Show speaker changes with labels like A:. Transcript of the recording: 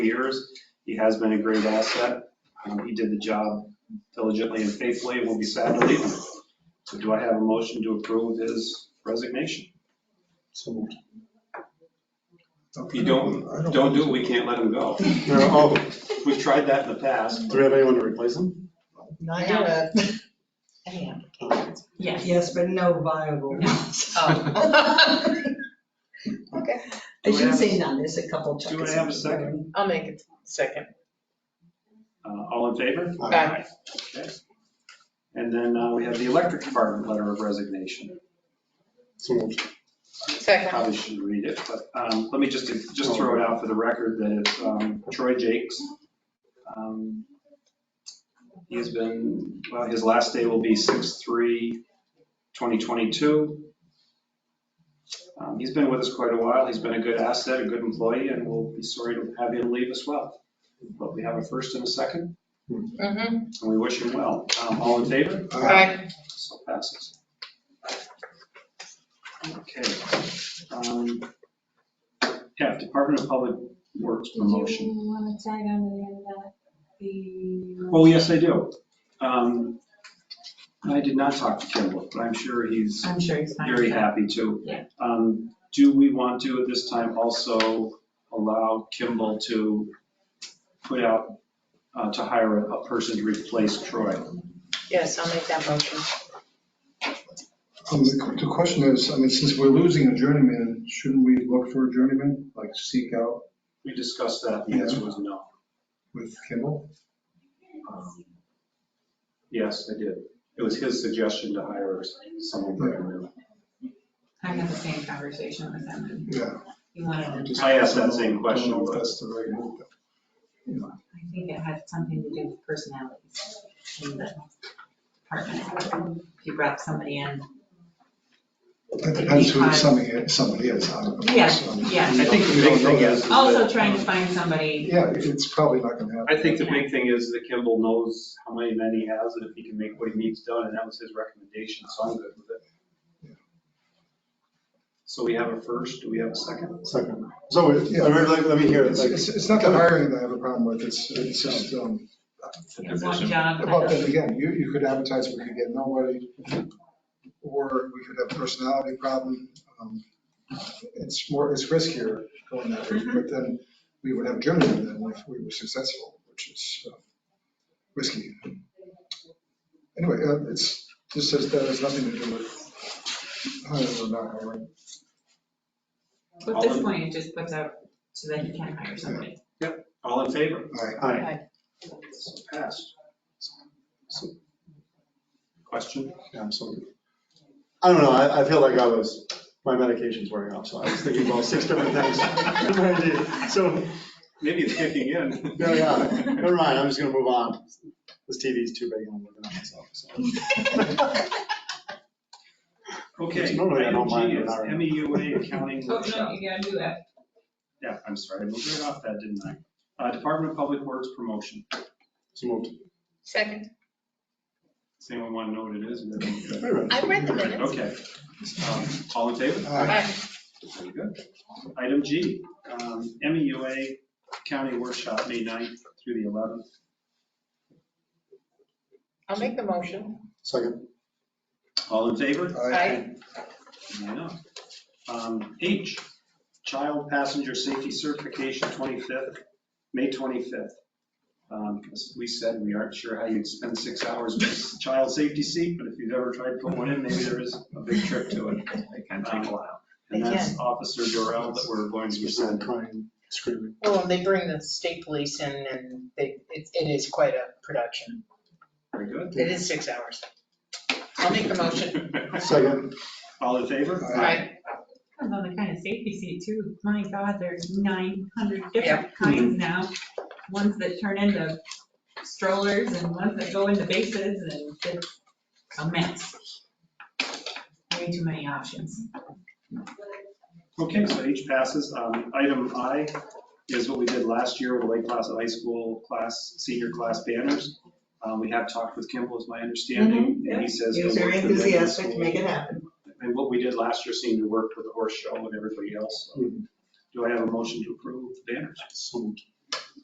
A: years. He has been a great asset. Um, He did the job diligently and faithfully, and will be sad to leave him. So do I have a motion to approve his resignation?
B: So,
A: If you don't,
B: I don't,
A: don't do it, we can't let him go.
B: There are- oh,
A: We've tried that in the past.
B: do we have anyone to replace him?
C: Not
D: No.
C: yet.
D: Any
B: applications?
D: Yes.
C: Yes, but no viable ones.
D: Okay.
C: I shouldn't say none, there's a couple.
A: Do I
C: chuckers
A: have a
C: in
A: second?
D: I'll make it second.
A: Uh, All in favor?
B: Aye.
E: Uh,
D: Aye.
A: Okay. And then uh, we have the electric department letter of resignation.
B: So moved.
D: Second.
A: Probably should read it, but um, let me just, just throw it out for the record that it's um, Troy Jakes. Um, He's been, well, his last day will be 6/3/2022. Um, He's been with us quite a while. He's been a good asset, a good employee, and we'll be sorry to have him leave as well. But we have a first and a second,
D: Mm-hmm.
A: and we wish him well. Um, All in favor?
E: Uh,
D: Aye.
A: So passes. Okay. um, F, Department of Public Works
F: Did
A: promotion.
F: you want to tag on to the end of that, the?
G: uh,
A: Oh, yes, I do. Um, I did not talk to Kimball, but I'm sure he's
D: I'm sure he's
A: very happy to.
D: Yeah.
A: Um, Do we want to at this time also allow Kimball to put out, uh, to hire a- a person to replace Troy?
D: Yes, I'll make that motion.
B: Um, The the question is, I mean, since we're losing a journeyman, shouldn't we look for a journeyman, like seek out
A: We discussed that, the answer was no.
B: with Kimball?
A: Um, Yes, I did. It was his suggestion to hire someone brand new.
G: I had the same conversation with him, and
B: Yeah.
G: he wanted to.
A: I asked that same
B: I don't
A: question,
B: know if
A: but
B: that's the right move. but, you know,
G: I think it had something to do with personalities in the department. He brought somebody in.
B: It depends who somebody, somebody is. I don't know,
G: Yeah,
B: so,
G: yeah.
B: we
A: I think
B: don't-
A: the
B: we don't
A: big
B: know
A: thing
B: that.
A: is. is
G: Also
A: that-
G: trying to find somebody,
B: Yeah, it's probably not gonna happen.
A: I think the big thing is that Kimball knows how many men he has and if he can make what he needs done, and that was his recommendation, so I'm good with it. So we have a first, do we have a second?
B: Second. So,
E: uh,
B: yeah, let, let me hear it. It's, it's not the hiring that I have a problem with, it's, it's just, um,
G: one job.
B: But then again, you, you could advertise, we could get nobody, or we could have personality problem. Um, It's more, it's riskier going that way, but then we would have journeyman then if we were successful, which is uh, risky. Anyway, uh, it's, this says that has nothing to do with hiring or not hiring.
G: At this point, it just puts out so that he can hire somebody.
A: All in favor?
B: I-
A: Aye. So passed. So- Question?
E: Yeah, absolutely. I don't know, I, I feel like I was, my medication's wearing off, so I was thinking about six different things. So,
A: Maybe it's kicking in.
E: no, yeah, never mind, I'm just gonna move on. This TV's too big, and I'm looking at myself, so.
A: Okay,
E: It's normally I don't mind
A: IMG is
E: hiring.
A: MEUA accounting
G: Oh,
A: workshop.
G: no, you gotta do that.
A: Yeah, I'm sorry, I moved right off that, didn't I? Uh, Department of Public Works promotion.
E: So moved.
D: Second.
A: Does anyone want to know what it is?
E: Wait a minute.
D: I read the minutes.
A: Okay. Um, All in favor?
B: I-
D: Aye.
A: Very good. Item G, um, MEUA County Workshop, May 9th through the 11th.
D: I'll make the motion.
E: Second,
A: All in favor?
B: I-
A: Nine oh. Um, H, Child Passenger Safety Certification, 25th, May 25th. Um, As we said, we aren't sure how you'd spend six hours with a child safety seat, but if you've ever tried to put one in, maybe there is a big trick to it. It can take a while. And that's Officer Durrell that we're going to be
E: you said
A: sending.
E: crying, screaming.
D: Well, oh, and they bring the state police in and they, it, it is quite a production.
A: Very good.
D: It is six hours. I'll make the motion.
E: Second,
A: All in favor?
D: Aye.
G: Depends on the kind of safety seat too. My God, there's 900 different kinds now. Ones that turn into strollers and ones that go into bases and it's a mess. Way too many options.
A: Okay, so H passes. Um, Item I is what we did last year with Lake Placid High School class, senior class banners. Um, We have talked with Kimball, is my understanding, and he says.
C: Mm-hmm. He was very enthusiastic to make it happen.
A: And what we did last year seemed to work with the horse show and everybody else. so.
E: Mhm.
A: Do I have a motion to approve the banners?
E: so moved.